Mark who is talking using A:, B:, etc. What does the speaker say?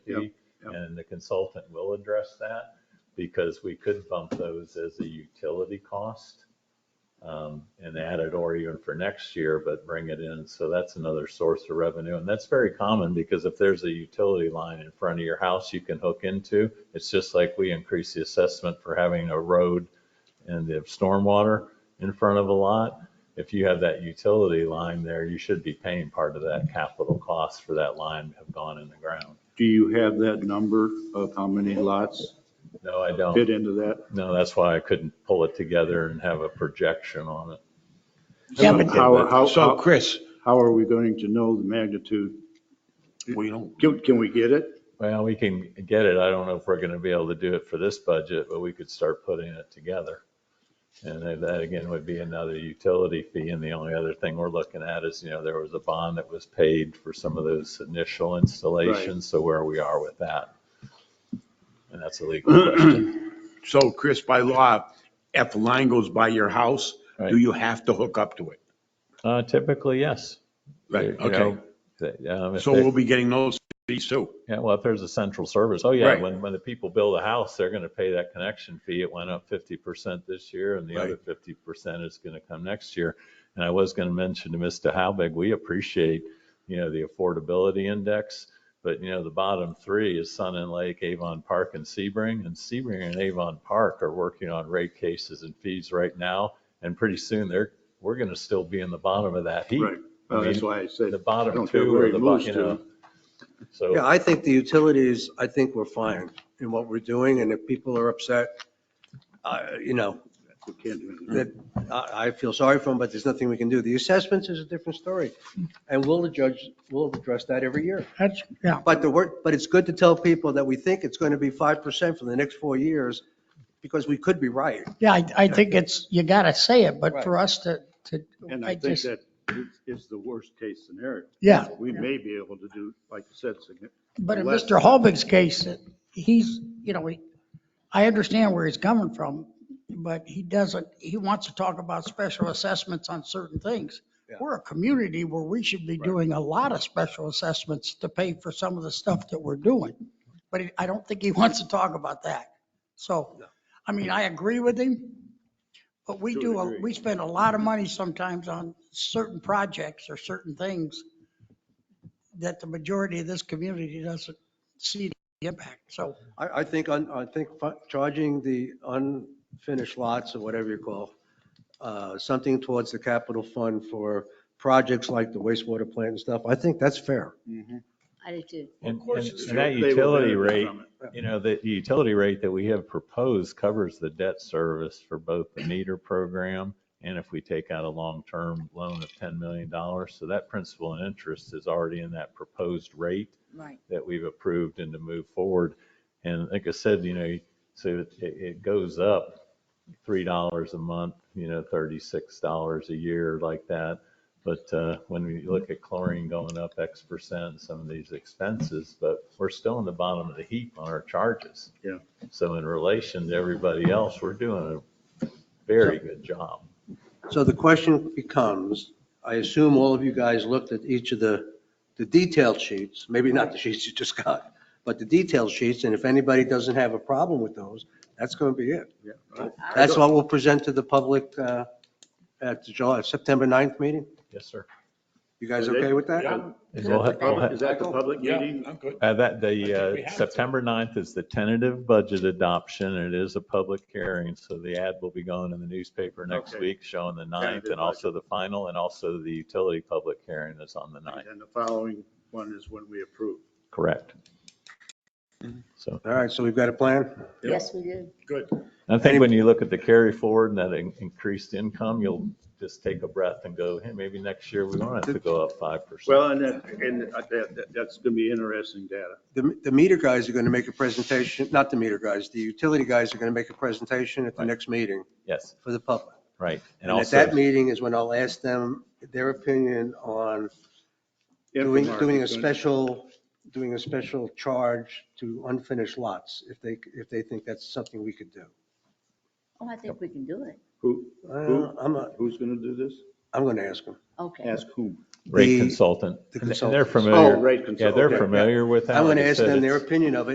A: and the consultant will address that because we could bump those as a utility cost um, and add it or even for next year, but bring it in. So that's another source of revenue. And that's very common because if there's a utility line in front of your house you can hook into, it's just like we increase the assessment for having a road and the stormwater in front of a lot. If you have that utility line there, you should be paying part of that capital cost for that line to have gone in the ground.
B: Do you have that number of how many lots
A: No, I don't.
B: fit into that?
A: No, that's why I couldn't pull it together and have a projection on it.
C: Yeah, but-
B: How, how,
C: So
B: how-
C: Chris,
B: how are we going to know the magnitude?
C: we don't,
B: Can, can we get it?
A: Well, we can get it. I don't know if we're going to be able to do it for this budget, but we could start putting it together. And then that again would be another utility fee. And the only other thing we're looking at is, you know, there was a bond that was paid for some of those initial installations. So where we are with that. And that's a legal question.
C: so Chris, by law, if the line goes by your house,
A: Right.
C: do you have to hook up to it?
A: Uh, Typically, yes.
C: Right,
A: You
C: okay.
A: know, they- um, if
C: So
A: they-
C: we'll be getting those fees too.
A: Yeah, well, if there's a central service, oh yeah,
C: Right.
A: when, when the people build a house, they're gonna pay that connection fee. It went up fifty percent this year and the other fifty percent is gonna come next year. And I was gonna mention to Mr. Halbig, we appreciate, you know, the affordability index. But you know, the bottom three is Sun and Lake, Avon Park and Sebring. And Sebring and Avon Park are working on rate cases and fees right now. And pretty soon they're, we're gonna still be in the bottom of that heap.
B: Right. Well, Uh, that's why I said.
A: The
B: I
A: bottom
B: don't care
A: two
B: where
A: are
B: it
A: the, bo-
B: moves
A: you
B: to.
A: know. So.
D: Yeah, I think the utilities, I think we're fine in what we're doing, and if people are upset, uh, you know,
B: we can't do anything.
D: that, I, I feel sorry for them, but there's nothing we can do. The assessments is a different story, and we'll judge, we'll address that every year.
E: That's, yeah,
D: But the work, but it's good to tell people that we think it's going to be 5% for the next four years, because we could be right.
E: yeah, I, I think it's, you gotta say it, but for us to, to,
B: And I
E: I
B: think
E: just,
B: that is- is the worst case scenario.
E: yeah.
B: We may be able to do, like you said, signi-
E: But in
B: less-
E: Mr. Holbig's case, he's, you know, he, I understand where he's coming from, but he doesn't, he wants to talk about special assessments on certain things.
D: Yeah.
E: We're a community where we should be doing a lot of special assessments to pay for some of the stuff that we're doing. But he- I don't think he wants to talk about that. So, I mean, I agree with him, but we
B: To a
E: do, a-
B: degree.
E: we spend a lot of money sometimes on certain projects or certain things that the majority of this community doesn't see the impact. So
D: I, I think, on- I think fi- charging the unfinished lots or whatever you call, uh, something towards the capital fund for projects like the wastewater plant and stuff, I think that's fair.
F: I do too.
A: And
B: course
A: and-
B: it's
A: and
B: true.
A: that
B: They will
A: utility
B: benefit
A: rate,
B: from
A: you know, the the utility rate that we have proposed covers the debt service for both the meter program and if we take out a long-term loan of $10 million. So that principal and interest is already in that proposed rate
F: Right.
A: that we've approved and to move forward. And like I said, you know, so it, it goes up three dollars a month, you know, thirty-six dollars a year like that. But uh, when we look at chlorine going up X percent, some of these expenses, but we're still in the bottom of the heap on our charges.
B: Yeah.
A: So in relation to everybody else, we're doing a very good job.
D: So the question becomes, I assume all of you guys looked at each of the, the detailed sheets, maybe not the sheets you just got, but the detailed sheets, and if anybody doesn't have a problem with those, that's going to be it. That's what we'll present to the public uh, at the July, September 9th meeting.
A: Yes, sir.
D: You guys okay with that?
A: And we'll have- we'll have-
B: Is that the public meeting?
C: I'm good.
A: Uh, That, the
C: think we
A: uh,
C: have to.
A: September 9th is the tentative budget adoption. and It is a public hearing, so the ad will be going in the newspaper next
B: Okay.
A: week showing the 9th
B: Tentative
A: and also the final and also the utility public hearing is on the 9th.
B: And the following one is when we approve.
A: Correct.
B: Mm-hmm.
A: So
D: All right, so we've got a plan?
F: Yes, we do.
C: Good.
A: I think when you look at the carry forward and that in- increased income, you'll just take a breath and go, hey, maybe next year we won't have to go up 5%.
B: Well, and that, and that, that- that's going to be interesting data.
D: The, the meter guys are going to make a presentation, not the meter guys, the utility guys are going to make a presentation at the
A: Right.
D: next meeting
A: Yes,
D: for the public.
A: right. And
D: And at
A: also,
D: that meeting is when I'll ask them their opinion on doing,
B: Infomark
D: doing a
B: is gonna-
D: special, doing a special charge to unfinished lots, if they, if they think that's something we could do.
F: Oh, I think we can do it.
B: Who,
D: Uh, I'm, not-
B: who's going to do this?
D: I'm going to ask them.
F: Okay.
B: Ask whom?
A: rate
D: the-
A: consultant,
D: the
A: and they're
D: consultants.
A: familiar.
B: Oh, rate
A: Yeah,
B: consultant.
A: they're
B: Okay, yeah.
A: familiar with that.
D: I'm going
A: Like
D: to
A: I
D: ask
A: said,
D: them their
A: it's-
D: opinion of it.